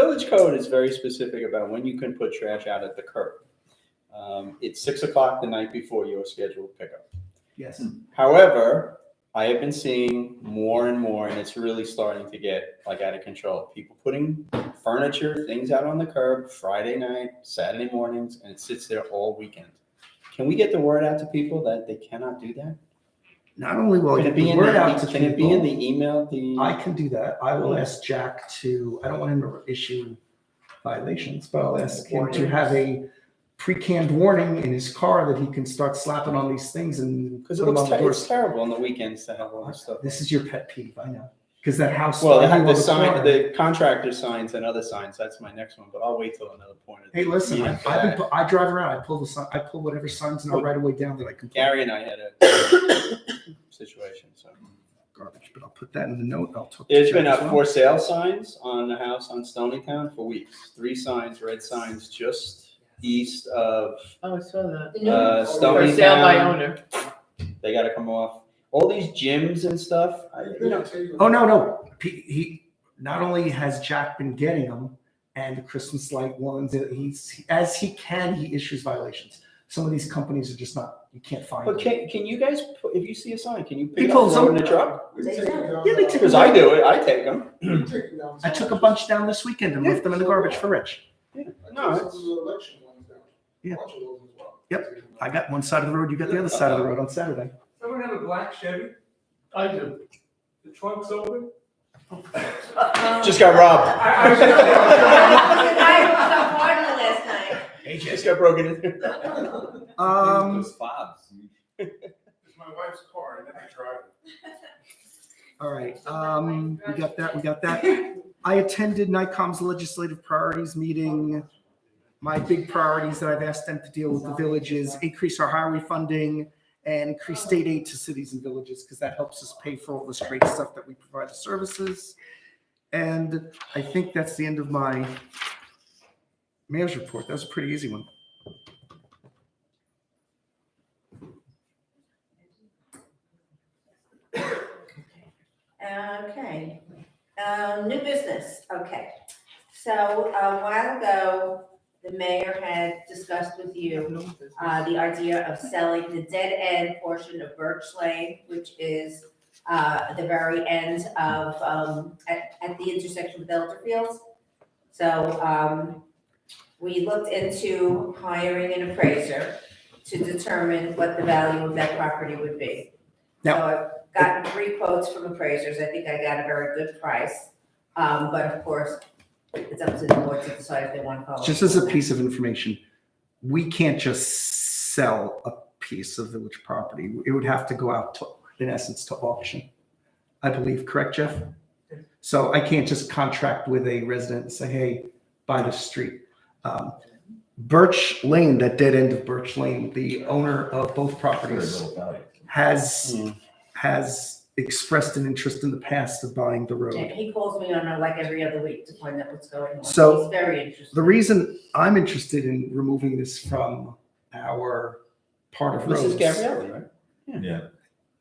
village code is very specific about when you can put trash out at the curb. Um, It's six o'clock the night before your scheduled pickup. Yes. However, I have been seeing more and more, and it's really starting to get like out of control. People putting furniture, things out on the curb Friday night, Saturday mornings, and it sits there all weekend. Can we get the word out to people that they cannot do that? Not only will I Can get it be the in word out to the, e- can it be in people, the email, the? I can do that. I will ask Jack to, I don't want him to issue violations, but I'll ask him to have a pre-canned warning in his car that he can start slapping on these things and put Because it them looks on the ter- it's doors. terrible on the weekends to have all this stuff. This is your pet peeve, I know. Because that house. Well, I they knew have the on the sign, corner. the contractor signs and other signs. That's my next one, but I'll wait till another point. of the Hey, listen, I, meeting for I've been, that. pu- I drive around, I pull the sign, I pull whatever signs in our right of way down that I can. pull. Gary and I had a situation, so. Garbage, but I'll put that in the note, I'll. talk to There's Jack been as up well. for sale signs on the house on Stonytown for weeks. Three signs, red signs, just east of, Oh, I saw that. uh, For Stony sale by Town. owner. They gotta come off. All these gyms and stuff, I, you know, Oh, no, no. He, he not only has Jack been getting them and the Christmas light ones, uh, he's as he can, he issues violations. Some of these companies are just not, you can't find but them. can, can you guys, pu- if you see a sign, can you pick it People, up, throw it in some- the truck? Yeah, they took Cause I do it, I take them. I took a bunch down this weekend and left them in the garbage for Rich. No, it's- Yeah. Yep, I got one side of the road, you got the other side of the road on Saturday. Someone have a black Chevy? I do. The trunk's open? Just got robbed. I- I was on Florida last night. Just got broken into. Um, fobs. It's my wife's car, and then I drive it. all right, um, we got that, we got that. I attended NICOM's legislative priorities meeting. My big priorities that I've asked them to deal with the village is increase our highway funding and increase state aid to cities and villages because that helps us pay for all this great stuff that we provide the services. And I think that's the end of my mayor's report. That was a pretty easy one. Okay, um, new business, okay. So a while ago, the mayor had discussed with you, uh, the idea of selling the dead end portion of Birch Lane, which is, uh, the very end of, um, at, at the intersection with Elder Fields. So, um, we looked into hiring an appraiser to determine what the value of that property would be. So Now- I gotten three quotes from appraisers, I think I got a very good price. Um, but of course, it's up to the board to decide if they want to follow. Just as a piece of information, we can't just sell a piece of village property. It would have to go out to, in essence, to auction. I believe, correct, Jeff? So I can't just contract with a resident and say, hey, buy the street. Um, Birch Lane, that dead end of Birch Lane, the owner of both properties has, Mm. has expressed an interest in the past of buying the road. And he calls me on uh, like every other week to find out what's going on. So, He's very interested. The reason I'm interested in removing this from our part of This is roads, Gabrielli, right?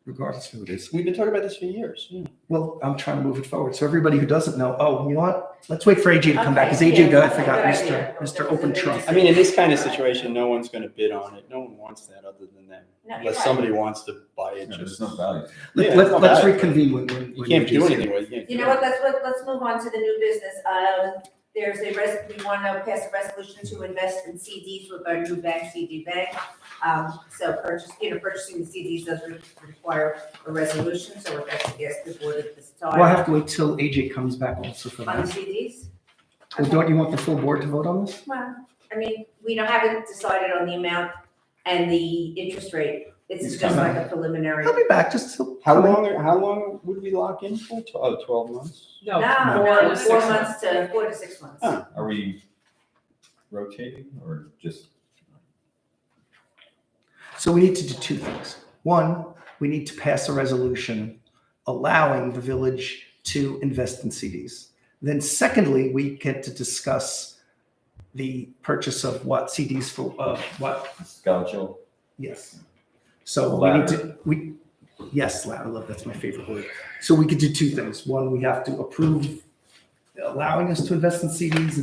regardless of who it is. We've been talking about this for years, yeah. Well, I'm trying to move it forward. So everybody who doesn't know, oh, you know what? Let's wait for AJ to come back. Because Okay, AJ, yeah, go- I that's a forgot, good Mr. idea. Mr. Open Trump. I mean, in this kind of situation, no one's gonna bid on it. No one wants that other than them. No, you're Unless right. somebody wants to buy it, There's just, no value. Yeah, Let- it's not let- Let's bad. reconvene when, when. you when can't AJ 's do here. anything with it. You know what, let's, let- let's move on to the new business. Um, there's a res, we want to pass a resolution to invest in CDs with our new bank, CD Bank. Um, so purchase, you know, purchasing the CDs doesn't require a resolution, so we're actually asking the board at this time. Well, I have to wait till AJ comes back also for On the that. CDs? Well, don't you want the full board to vote on this? Well, I mean, we don't, haven't decided on the amount and the interest rate. It's It's just coming. like a preliminary. He'll be back just till. How long, are- how long would we lock in for? Tw- Oh, twelve months? No, No, no, to four six months to, four to six months. Huh. Are we rotating or just? So we need to do two things. One, we need to pass a resolution allowing the village to invest in CDs. Then secondly, we get to discuss the purchase of what CDs for, uh, what, Scoutchel. yes. So we need to, we, yes, loud, I love, that's my favorite word. So we could do two things. One, we have to approve allowing us to invest in CDs